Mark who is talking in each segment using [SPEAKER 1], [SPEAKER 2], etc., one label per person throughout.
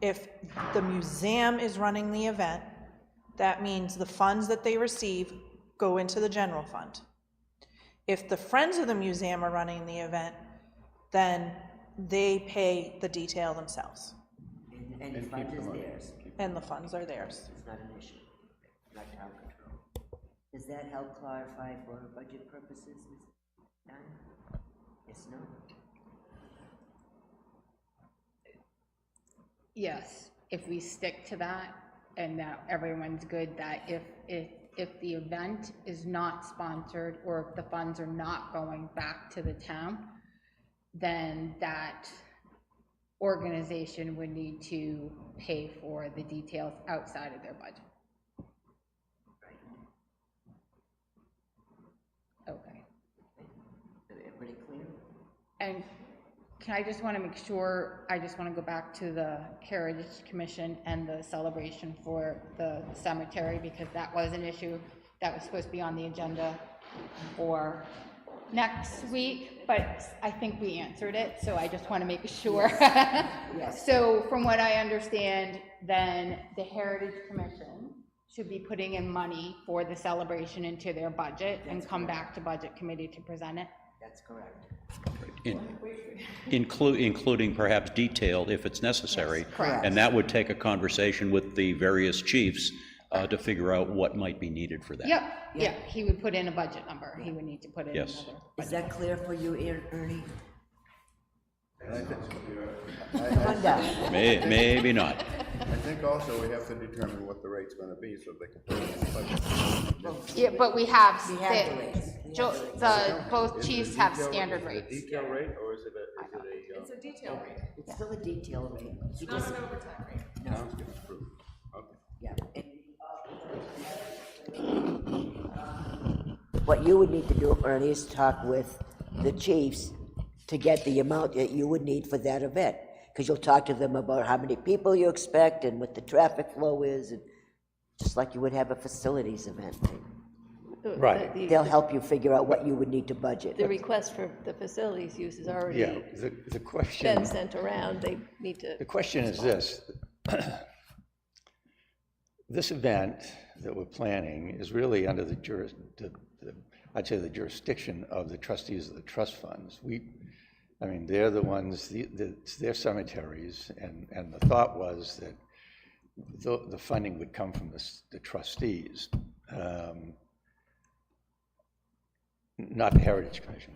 [SPEAKER 1] if the museum is running the event, that means the funds that they receive go into the general fund. If the Friends of the Museum are running the event, then they pay the detail themselves,
[SPEAKER 2] And- And the fund is theirs,
[SPEAKER 1] and the funds are theirs.
[SPEAKER 2] it's not an issue, not town control. Does that help clarify for budget purposes, Ms. Dunn? Yes, no?
[SPEAKER 3] Yes, if we stick to that and that everyone's good, that if, if, if the event is not sponsored or if the funds are not going back to the town, then that organization would need to pay for the details outside of their budget. Okay.
[SPEAKER 2] Everybody clear?
[SPEAKER 3] And can I just want to make sure, I just want to go back to the Heritage Commission and the celebration for the cemetery, because that was an issue that was supposed to be on the agenda for next week, but I think we answered it, so I just want to make sure. So from what I understand, then the Heritage Commission should be putting in money for the celebration into their budget and come back to Budget Committee to present it.
[SPEAKER 2] That's correct.
[SPEAKER 4] In- inclu- Including perhaps detail if it's necessary.
[SPEAKER 3] correct.
[SPEAKER 4] And that would take a conversation with the various chiefs uh, to figure out what might be needed for that.
[SPEAKER 3] Yep, yeah, he would put in a budget number, he would need to put in
[SPEAKER 4] Yes.
[SPEAKER 3] another.
[SPEAKER 2] Is that clear for you, Er- Ernie?
[SPEAKER 5] I,
[SPEAKER 2] Linda?
[SPEAKER 4] May- Maybe not.
[SPEAKER 5] I, I think also we have to determine what the rate's gonna be, so they can put it in the budget.
[SPEAKER 3] Yeah, but we have,
[SPEAKER 2] We have the rates. We have
[SPEAKER 3] Jo-
[SPEAKER 2] the rates.
[SPEAKER 3] the, both
[SPEAKER 5] Is it a
[SPEAKER 3] chiefs have
[SPEAKER 5] detail-
[SPEAKER 3] standard
[SPEAKER 5] is it a
[SPEAKER 3] rates.
[SPEAKER 5] Detail rate, or is it a, is it a? uh,
[SPEAKER 6] It's a detail rate,
[SPEAKER 2] It's still a detail rate. He
[SPEAKER 6] not
[SPEAKER 2] just,
[SPEAKER 6] an overtime rate.
[SPEAKER 5] Town's gonna approve. Okay.
[SPEAKER 2] yeah. What you would need to do, Ernie, is talk with the chiefs to get the amount that you would need for that event. Because you'll talk to them about how many people you expect and what the traffic flow is, and just like you would have a facilities event.
[SPEAKER 7] Right.
[SPEAKER 2] They'll help you figure out what you would need to budget.
[SPEAKER 8] The request for the facilities use has
[SPEAKER 7] Yeah,
[SPEAKER 8] already
[SPEAKER 7] the, the question,
[SPEAKER 8] been sent around, they need to.
[SPEAKER 7] the question is this. This event that we're planning is really under the juris, the, the- I'd say the jurisdiction of the trustees of the trust funds. We, I mean, they're the ones, the, the- it's their cemeteries, and, and the thought was that the, the funding would come from the, s- the trustees, um, not the Heritage Commission.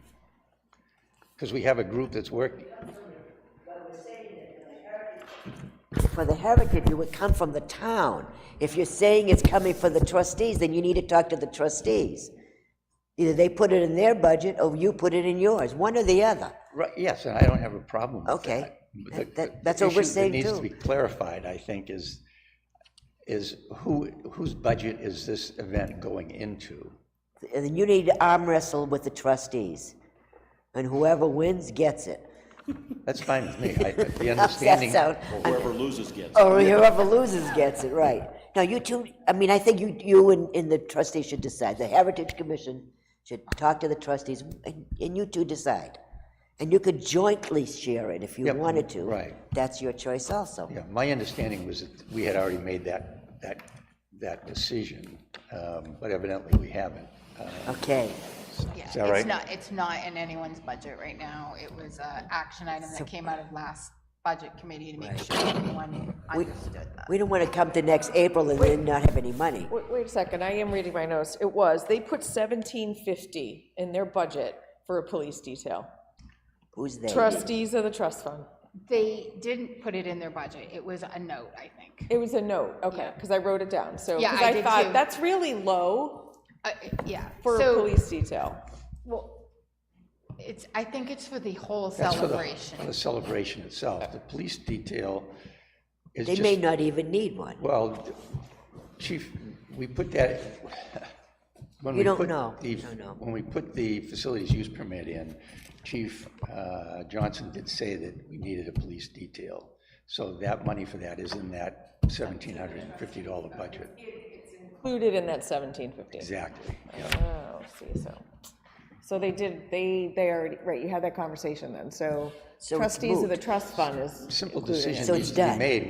[SPEAKER 7] Because we have a group that's working,
[SPEAKER 2] For the heritage, it would come from the town. If you're saying it's coming for the trustees, then you need to talk to the trustees. Either they put it in their budget, or you put it in yours, one or the other.
[SPEAKER 7] Right, yes, and I don't have a problem with
[SPEAKER 2] Okay.
[SPEAKER 7] that. But
[SPEAKER 2] That-
[SPEAKER 7] the-
[SPEAKER 2] that-
[SPEAKER 7] the
[SPEAKER 2] that's what we're
[SPEAKER 7] issue
[SPEAKER 2] saying,
[SPEAKER 7] That needs
[SPEAKER 2] too.
[SPEAKER 7] to be clarified, I think, is, is who, whose budget is this event going into?
[SPEAKER 2] And then you need to arm wrestle with the trustees. And whoever wins gets it.
[SPEAKER 7] That's fine with me, I- the
[SPEAKER 2] How's that
[SPEAKER 7] understanding.
[SPEAKER 2] sound?
[SPEAKER 4] Or Whoever loses gets.
[SPEAKER 2] Or whoever loses gets it, right. Now, you two, I mean, I think you, you and, and the trustees should decide. The Heritage Commission should talk to the trustees, and, and you two decide. And you could jointly share it if you
[SPEAKER 7] Yep,
[SPEAKER 2] wanted to.
[SPEAKER 7] right.
[SPEAKER 2] That's your choice also.
[SPEAKER 7] Yeah, my understanding was that we had already made that, that, that decision, um, but evidently we haven't. Uh,
[SPEAKER 2] Okay,
[SPEAKER 3] Yeah, it's
[SPEAKER 7] that right?
[SPEAKER 3] not, it's not in anyone's budget right now, it was a action item that came out of last Budget Committee to make sure everyone understood that.
[SPEAKER 2] we don't want to come to next April and then not have any money.
[SPEAKER 6] Wait, wait a second, I am reading my notes. It was, they put seventeen fifty in their budget for a police detail.
[SPEAKER 2] Who's there?
[SPEAKER 6] Trustees of the trust fund.
[SPEAKER 3] They didn't put it in their budget, it was a note, I think.
[SPEAKER 6] It was a note, okay, because I wrote it down, so,
[SPEAKER 3] Yeah,
[SPEAKER 6] because
[SPEAKER 3] I
[SPEAKER 6] I
[SPEAKER 3] did too.
[SPEAKER 6] thought, that's really low
[SPEAKER 3] Uh, Yeah,
[SPEAKER 6] for a
[SPEAKER 3] so,
[SPEAKER 6] police detail.
[SPEAKER 3] well, it's, I think it's for the whole
[SPEAKER 7] that's for the-
[SPEAKER 3] celebration.
[SPEAKER 7] For the celebration itself, the police detail is
[SPEAKER 2] They
[SPEAKER 7] just.
[SPEAKER 2] may not even need one.
[SPEAKER 7] Well, Chief, we put that, when
[SPEAKER 2] You
[SPEAKER 7] we
[SPEAKER 2] don't
[SPEAKER 7] put
[SPEAKER 2] know.
[SPEAKER 7] the-
[SPEAKER 2] You don't know.
[SPEAKER 7] When we put the facilities use permit in, Chief uh, Johnson did say that we needed a police detail. So that money for that is in that $1,750 budget.
[SPEAKER 6] Included in that seventeen fifty.
[SPEAKER 7] Exactly.
[SPEAKER 6] Oh, see, so, so they did, they, they already, right, you had that conversation then, so
[SPEAKER 2] So it's
[SPEAKER 6] trustees of the
[SPEAKER 2] moot.
[SPEAKER 6] trust fund is
[SPEAKER 7] Simple
[SPEAKER 6] included in it.
[SPEAKER 7] decision
[SPEAKER 2] So
[SPEAKER 7] needs
[SPEAKER 2] it's
[SPEAKER 7] to be
[SPEAKER 2] done.
[SPEAKER 7] made